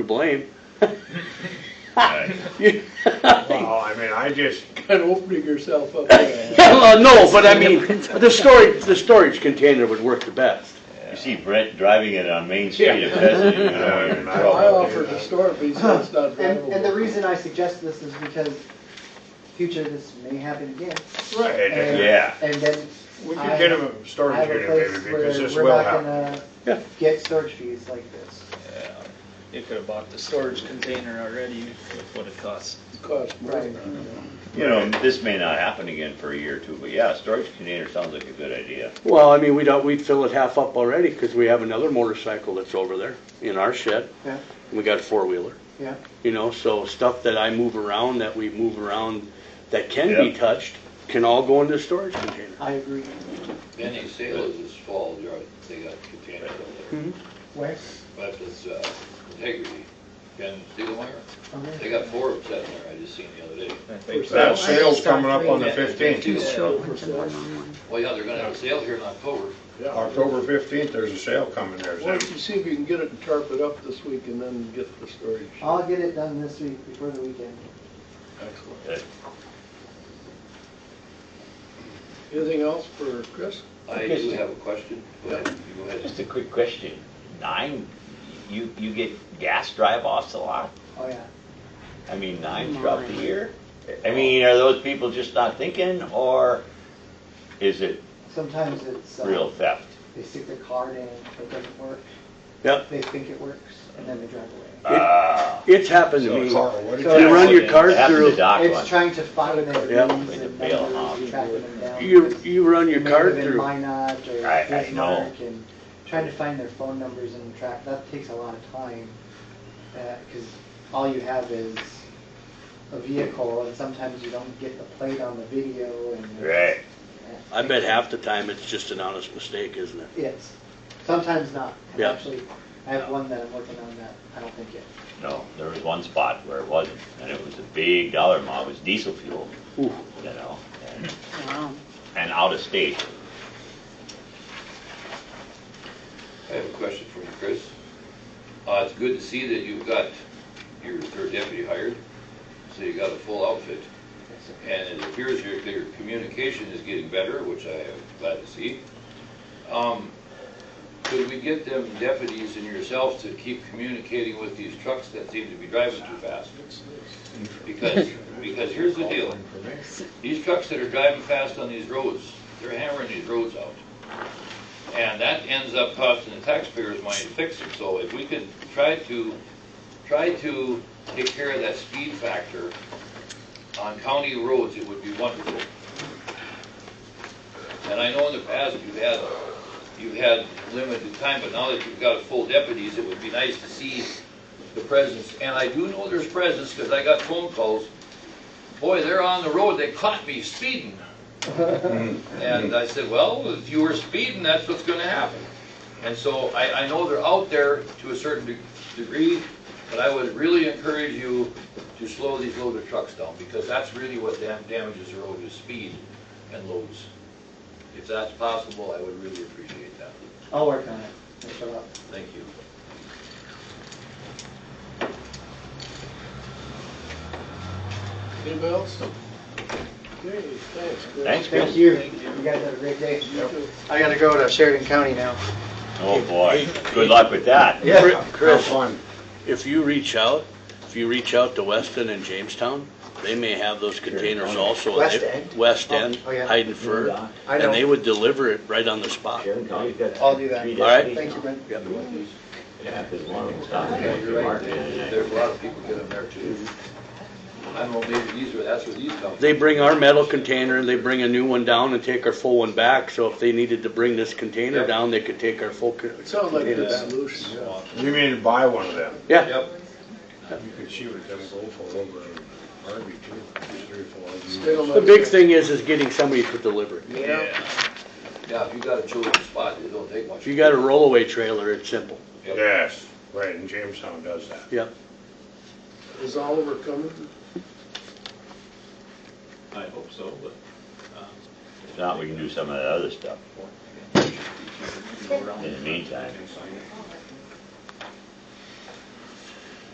to blame. Right. You- Well, I mean, I just, Kind of opening yourself up. there. Uh, No, but I mean, the storage, the storage container would work the best. You see Brett driving it on Main Street at Pheasant, you know, you're in I I trouble. offered to store it, but he said it's not And, and the drivable. reason I suggest this is because future, this may happen again. right, And- and Yeah. And then we could get him a I storage have a unit maybe, place because where this we're will not happen. Yeah. gonna get storage fees like this. You could have bought the storage container already with what it costs. Cost more than that. You know, this may not happen again for a year or two, but yeah, storage container sounds like a good idea. Well, I mean, we don't, we fill it half up already because we have another motorcycle that's over there in our shed. Yeah, We got a four-wheeler, yeah. you know, so stuff that I move around, that we move around, that can be Yeah. touched, can all go into the storage container. I agree. Many sailors this fall, they're out- they got containers over there, Where? but it's, uh, integrity, and Steelwire, Okay. they got four of them sitting there, I just seen the other day. I think That sale's Stop coming up on the reading it. fifteenth, Well, yeah, they're gonna have a sale here in October, Yeah. October fifteenth, there's a sale coming there, Why is don't you see if you can get it and tarp it up this week and then get the storage? I'll get it done this week before the weekend. Excellent. Anything else for Chris? I do have a question, go ahead, you go ahead. Just a quick question. Nine, you, you get gas drive-offs a lot? Oh, yeah. I mean, nine throughout the year? I mean, are those people just not thinking, or is it Sometimes it's, real uh, theft? they stick their card in, it doesn't work. Yep. They think it works, and then they drive away. Ah, It's happened to there? me. Carl, what did So- You you, run your it car happened to through, Doc It's once. trying to find their Yeah. rings Like a and bail numbers hog. and tracking them down. you, you run your It may car have been through. Minot or I- I know. Bismarck and trying to find their phone numbers and track, that takes a lot of time. Because all you have is a vehicle and sometimes you don't get the plate on the video and. Right. Yeah. I bet half the time it's just an honest mistake, isn't it? Yes, sometimes not. And Yeah. Actually, I have one that I'm working on that, I don't think yet. No, there was one spot where it wasn't, and it was a big dollar amount, it was diesel fuel, Ooh. you know, and- Wow. and out of state. I have a question for you, Chris. Uh, it's good to see that you've got your third deputy hired, so you got a full outfit. And it appears your, your communication is getting better, which I am glad to see. Um, could we get them deputies and yourselves to keep communicating with these trucks that seem to be driving too fast? Because, because here's the deal. These trucks that are driving fast on these roads, they're hammering these roads out. And that ends up costing the taxpayers money to fix it. So if we could try to, try to take care of that speed factor on county roads, it would be wonderful. And I know in the past you've had, you've had limited time, but now that you've got full deputies, it would be nice to see the presence. And I do know there's presence because I got phone calls. Boy, they're on the road, they caught me speeding. And I said, well, if you were speeding, that's what's gonna happen. And so I, I know they're out there to a certain de- degree, but I would really encourage you to slow these loaded trucks down, because that's really what dam- damages the road is speed and loads. If that's possible, I would really appreciate that. I'll work on it, I'll shut up. Thank you. Anybody else? Okay, thanks, Chris. Thanks, Thank Chris. you, you guys have a great day. I gotta go to Sheridan County now. Oh, boy. Good luck with that. Yeah. Chris, fun. If you reach out, if you reach out to Weston and Jamestown, they may have those containers also. and they- West End? West Oh, End, oh, yeah. Hayden Fur, I and know. they would deliver it right on the spot. I'll do that. All right. Thank you, Brent. Yeah, 'cause one of them stopped and went through Market, and There's a lot of people get them there too. I don't know, maybe these are, that's where these come from. They bring our metal container, they bring a new one down and take our full one back, so if they needed to bring this container Yep. down, they could take our full. con- It sounds like a container good down. solution, yeah. you mean buy one of them? Yeah, Yep, You could see what them go for over in Harvey too, three or four of Still them. not the big thing is, is getting somebody to deliver it. Yeah. yeah, if you got a chosen spot, it don't take much. If you got a rollaway trailer, it's simple. Yes, right, and Jamestown does that. Yep. Is Oliver coming? I hope so, but If not, we can do some of that other stuff. go around. In the meantime,